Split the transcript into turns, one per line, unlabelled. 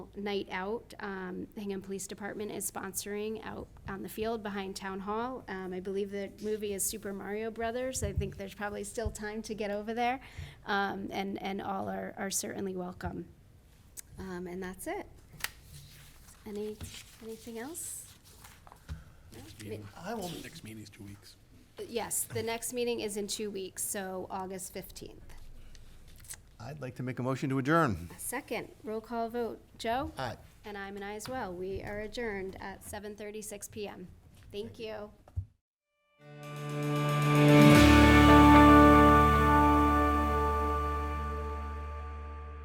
night out. Um, Hingham Police Department is sponsoring out on the field behind Town Hall. Um, I believe the movie is Super Mario Brothers. I think there's probably still time to get over there. Um, and, and all are, are certainly welcome. Um, and that's it. Any, anything else? No?
I will. Next meeting's two weeks.
Yes, the next meeting is in two weeks, so August 15th.
I'd like to make a motion to adjourn.
Second, roll call vote. Joe?
Aye.
And I'm an aye as well. We are adjourned at 7:36 PM. Thank you.